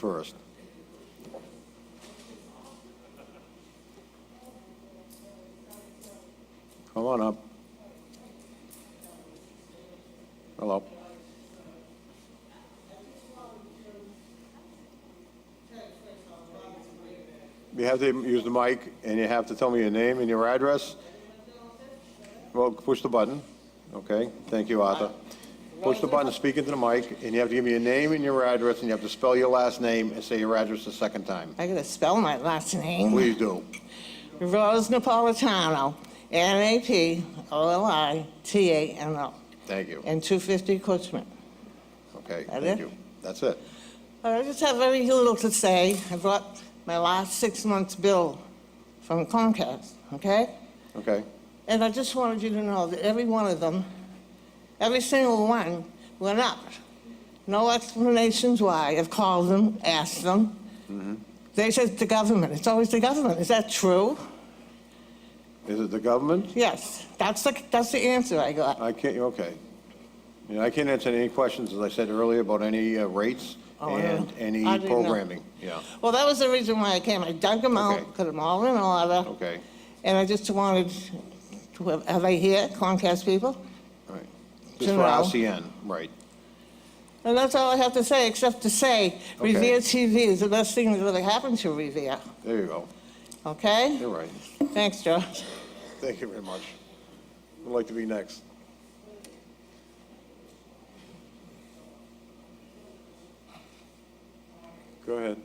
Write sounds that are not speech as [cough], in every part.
first. Come on up. Hello. You have to use the mic, and you have to tell me your name and your address. Well, push the button. Okay, thank you, Arthur. Push the button, speak into the mic, and you have to give me your name and your address, and you have to spell your last name and say your address the second time. I gotta spell my last name. Please do. Rose Napolitano, N-A-P-O-L-I-T-A-N-O, Thank you. and 250 Coachman. Okay, That thank it? you. That's it. I just have very little to say. I brought my last six months' bill from Comcast, okay? Okay, And I just wanted you to know that every one of them, every single one, went up. No explanations why. I've called them, asked them. They said the government. It's always the government. Is that true? is it the government? Yes, that's the, that's the answer I got. I can't, okay. You know, I can't answer any questions, as I said earlier, about any uh, rates Oh, yeah. and any I didn't know. programming. Yeah, Well, that was the reason why I came. I dug them Okay. out, put them all in order. okay, And I just wanted, to have are they here, Comcast people? all right. To Just for know. RCN, right. And that's all I have to say, except to say Okay. Revere TV is the best thing that ever happened to Revere, There you go. okay? You're right. Thanks, George. Thank you very much. Would like to be next. Go ahead.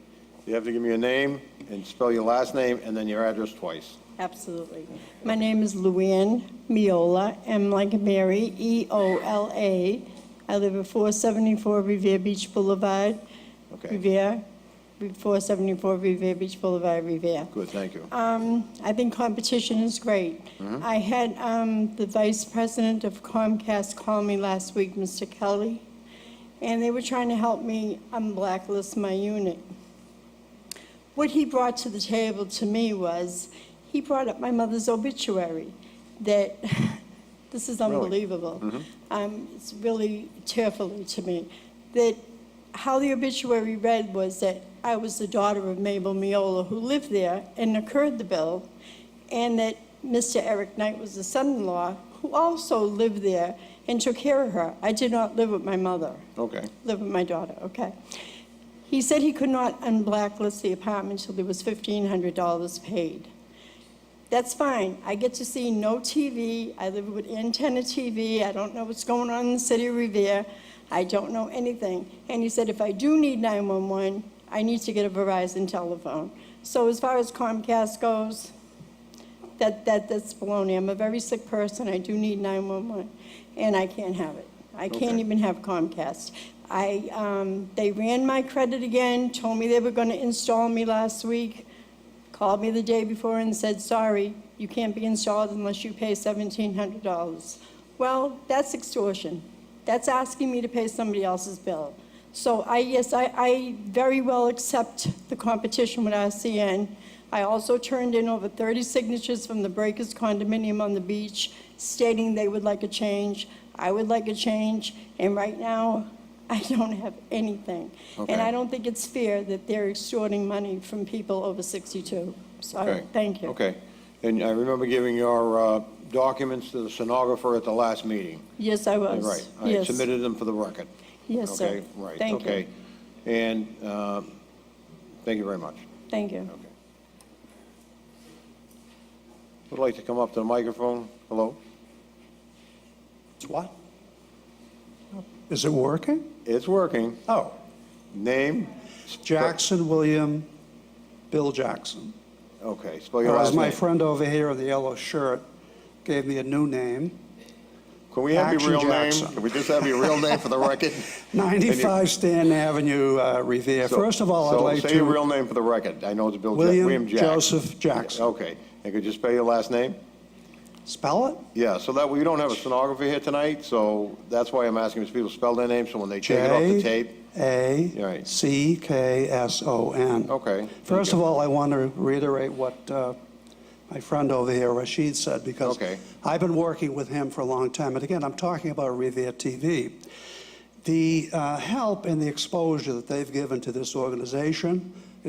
You have to give me your name and spell your last name and then your address twice. Absolutely. My name is Luann Miola, M like Mary, E E-O-L-A. I live at 474 Revere Beach Boulevard, Okay, Revere, 474 Revere Beach Boulevard, Revere. good, thank you. Um, I think competition is great. I had um, the vice president of Comcast call me last week, Mr. Kelly, and they were trying to help me unblacklist my unit. What he brought to the table to me was, he brought up my mother's obituary, that, [laughs] this is unbelievable. Um, It's really tearfully to me, that how the obituary read was that I was the daughter of Mabel Miola, who lived there and incurred the bill, and that Mr. Eric Knight was the son-in-law, who also lived there and took care of her. I did not live with my mother Okay, live with my daughter, okay. He said he could not unblacklist the apartment till there was $1,500 paid. That's fine, I get to see no TV, I live with antenna TV, I don't know what's going on in the city of Revere, I don't know anything. And he said, if I do need 911, I need to get a Verizon telephone. So as far as Comcast goes, that, that, that's baloney. I'm a very sick person, I do need 911, and I can't have it. I can't Okay. even have Comcast. I, um, they ran my credit again, told me they were gonna install me last week, called me the day before and said, sorry, you can't be installed unless you pay seventeen hundred dollars. Well, that's extortion. That's asking me to pay somebody else's bill. So I, yes, I, I very well accept the competition with RCN. I also turned in over 30 signatures from the Breakers condominium on the beach stating they would like a change. I would like a change, and right now, I don't have anything. And Okay. I don't think it's fair that they're extorting money from people over 62. So, okay. uh, thank you. Okay. And I remember giving your uh, documents to the stenographer at the last meeting. Yes, I was. Right, I Yes. submitted them for the record. Yes, sir. Okay, right, Thank you. okay. And uh, thank you very much. Thank you. Okay. Would like to come up to the microphone. Hello? It's what? Is it working? It's working. Oh, Name? Jackson William, Bill Jackson. Okay, spell your Whereas last my name. friend over here in the yellow shirt gave me a new name, Can we have your Action real name? Jackson. Can we just have your real name for the [laughs] record? 95 Stanton Avenue, uh, Revere. So- First of all, I'd so like say your real to, name for the record. I know it's Bill, Jack- William William Jack. Joseph Jackson. Okay, and could you spell your last name? Spell it? Yeah, so that, we don't have a stenographer here tonight, so that's why I'm asking these people to spell their name, so when they take it off the tape. Right. J-A-C-K-S-O-N. Okay, thank First you. of all, I want to reiterate what uh, my friend over here, Rashid, said, because Okay. I've been working with him for a long time. And again, I'm talking about Revere TV. the uh, help and the exposure that they've given to this organization,